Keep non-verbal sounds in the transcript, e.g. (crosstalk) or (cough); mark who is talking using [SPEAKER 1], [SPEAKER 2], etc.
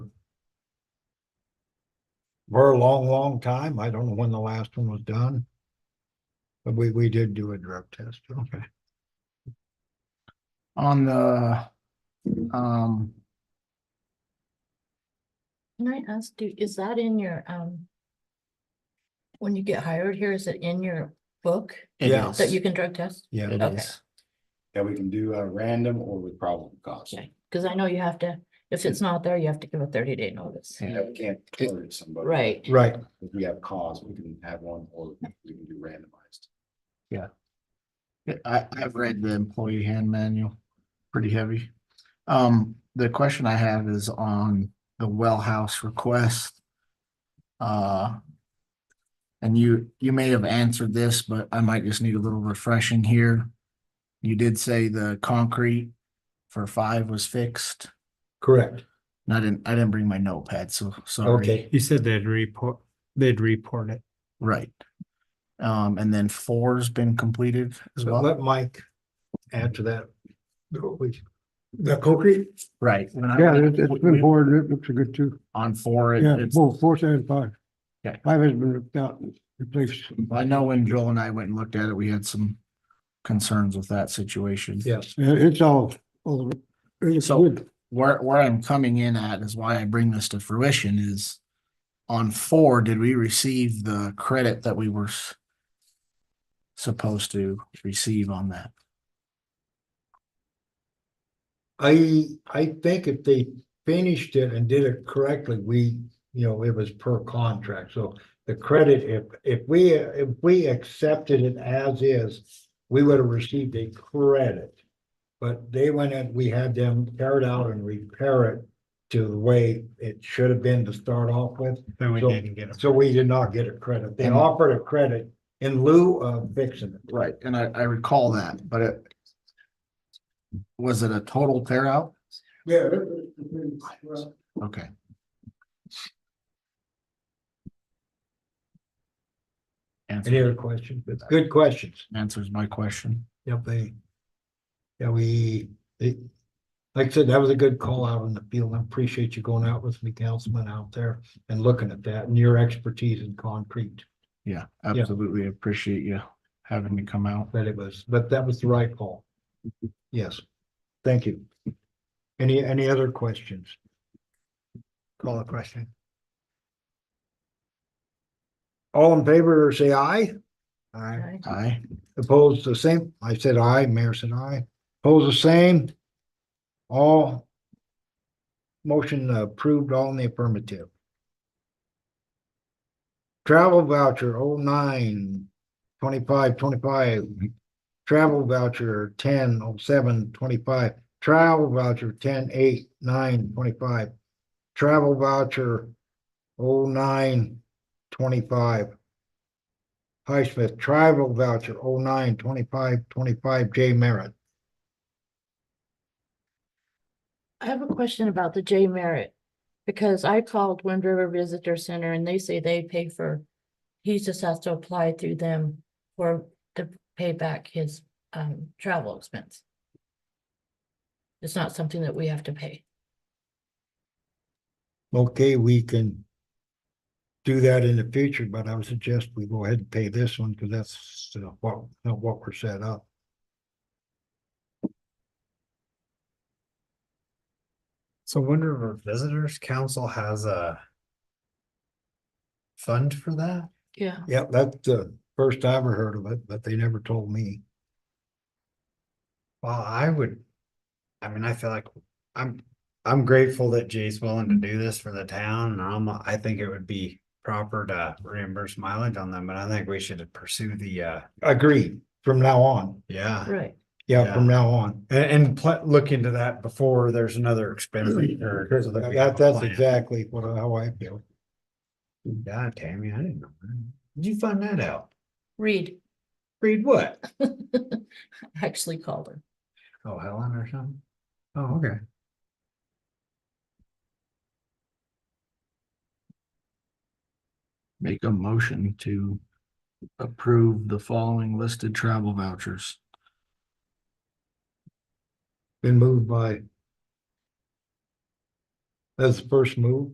[SPEAKER 1] for a long, long time. I don't know when the last one was done. But we, we did do a drug test. Okay.
[SPEAKER 2] on the, um,
[SPEAKER 3] Can I ask, do, is that in your, um, when you get hired here, is it in your book
[SPEAKER 2] it
[SPEAKER 1] Yeah.
[SPEAKER 2] is.
[SPEAKER 3] that you can drug test?
[SPEAKER 1] Yeah,
[SPEAKER 2] It
[SPEAKER 3] Okay.
[SPEAKER 2] is.
[SPEAKER 4] Yeah, we can do a random or with problem cost.
[SPEAKER 3] Okay, because I know you have to, if it's not there, you have to give a thirty day notice.
[SPEAKER 2] Yeah.
[SPEAKER 4] Yeah, we can't target somebody.
[SPEAKER 3] Right,
[SPEAKER 1] right.
[SPEAKER 4] If we have cause, we can have one or we can do randomized.
[SPEAKER 2] I, I've read the employee hand manual, pretty heavy. Um, the question I have is on the well house request. Uh, and you, you may have answered this, but I might just need a little refreshing here. You did say the concrete for five was fixed,
[SPEAKER 1] Correct.
[SPEAKER 2] and I didn't, I didn't bring my notepad, so sorry.
[SPEAKER 1] Okay.
[SPEAKER 5] You said they'd report, they'd report it.
[SPEAKER 2] Right. Um, and then four's been completed as
[SPEAKER 1] So
[SPEAKER 2] well,
[SPEAKER 1] let Mike add to that. The concrete?
[SPEAKER 2] right? when I
[SPEAKER 6] Yeah,
[SPEAKER 2] went-
[SPEAKER 6] it- it's
[SPEAKER 2] we-
[SPEAKER 6] been
[SPEAKER 2] we-
[SPEAKER 6] bored, it looks good too.
[SPEAKER 2] On four, it-
[SPEAKER 6] Yeah,
[SPEAKER 2] it's,
[SPEAKER 6] both fourth and five.
[SPEAKER 2] Okay.
[SPEAKER 6] Five has been ripped out and replaced.
[SPEAKER 2] I know when Joel and I went and looked at it, we had some concerns with that situation.
[SPEAKER 1] Yes.
[SPEAKER 6] Yeah, It's all, all, it's
[SPEAKER 2] So-
[SPEAKER 6] good.
[SPEAKER 2] Where, where I'm coming in at is why I bring this to fruition is on four, did we receive the credit that we were s- supposed to receive on that?
[SPEAKER 1] I, I think if they finished it and did it correctly, we, you know, it was per contract, so the credit, if, if we, if we accepted it as is, we would have received a credit. But they went and we had them tear it out and repair it to the way it should have been to start off with,
[SPEAKER 5] Then we
[SPEAKER 1] So-
[SPEAKER 5] didn't get it.
[SPEAKER 1] so we did not get a credit. They
[SPEAKER 2] And-
[SPEAKER 1] offered a credit in lieu of fixing it.
[SPEAKER 2] Right, and I, I recall that, but it was it a total tear out?
[SPEAKER 1] Yeah.
[SPEAKER 2] Okay.
[SPEAKER 1] Any
[SPEAKER 2] Answer
[SPEAKER 1] other questions? Good questions.
[SPEAKER 2] answers my question.
[SPEAKER 1] Yep, they. Yeah, we, they, like I said, that was a good call out in the field. I appreciate you going out with me, councilman, out there and looking at that and your expertise in concrete.
[SPEAKER 2] Yeah, absolutely appreciate you having me come out.
[SPEAKER 1] That it was, but that was the right call. Yes, thank you. Any, any other questions? Call a question. All in favor, say aye. Aye.
[SPEAKER 3] right.
[SPEAKER 2] Aye.
[SPEAKER 1] Opposed the same, I said aye, mayor said aye, opposed the same. All. Motion approved, all in the affirmative. Travel voucher 09 nine twenty-five twenty-five. Travel voucher ten oh seven twenty-five, travel voucher ten eight nine twenty-five. Travel voucher 09 nine twenty-five. Highsmith Tribal Voucher 09 nine twenty-five twenty-five J Merritt.
[SPEAKER 3] I have a question about the J Merritt. Because I called Wind River Visitor Center and they say they pay for, he just has to apply through them for to pay back his um travel expense. It's not something that we have to pay.
[SPEAKER 1] Okay, we can do that in the future, but I would suggest we go ahead and pay this one because that's uh, what, not what we're set up.
[SPEAKER 5] So Wind River Visitors Council has a fund for that?
[SPEAKER 3] Yeah.
[SPEAKER 1] Yeah, that's the first I ever heard of it, but they never told me.
[SPEAKER 5] Well, I would, I mean, I feel like I'm, I'm grateful that Jay's willing to do this for the town and I'm, I think it would be proper to reimburse mileage on them, but I think we should pursue the, uh,
[SPEAKER 1] Agreed, from now on.
[SPEAKER 5] yeah.
[SPEAKER 3] Right.
[SPEAKER 1] Yeah, from now on.
[SPEAKER 5] And, and pl- look into that before there's another expense. incurred so that we have
[SPEAKER 1] That,
[SPEAKER 5] a
[SPEAKER 1] that's
[SPEAKER 5] plan.
[SPEAKER 1] exactly what, I- how I feel.
[SPEAKER 5] Yeah, Tammy, I didn't know. that. Did you find that out?
[SPEAKER 3] Read.
[SPEAKER 5] Read what?
[SPEAKER 3] (laughs) Actually called her.
[SPEAKER 5] Oh, Helen or something? Oh, okay.
[SPEAKER 2] Make a motion to approve the following listed travel vouchers.
[SPEAKER 1] Been moved by. That's the first move.